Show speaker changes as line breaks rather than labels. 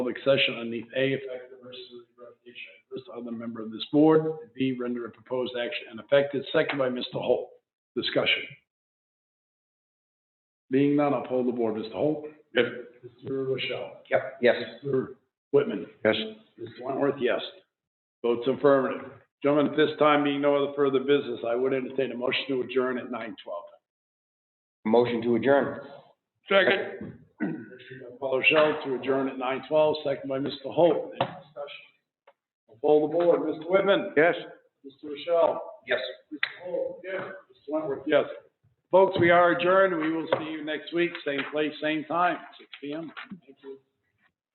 public session underneath A, effect the versus revocation of first other member of this board, and B, render a proposed action ineffective, second by Mr. Holt. Discussion. Being none, I'll poll the board. Mr. Holt?
Yes.
Mr. Rochelle?
Yep, yes.
Mr. Whitman?
Yes.
Mr. Wentworth, yes. Votes affirmative. Gentlemen, at this time, being no other further business, I would entertain a motion to adjourn at nine twelve.
Motion to adjourn. Second.
Paul Rochelle to adjourn at nine twelve, second by Mr. Holt. Any discussion? I'll Poll the board. Mr. Whitman?
Yes.
Mr. Rochelle?
Yes.
Mr. Holt? Yes. Mr. Wentworth, yes. Folks, we are adjourned. We will see you next week, same place, same time, six P M. Thank you.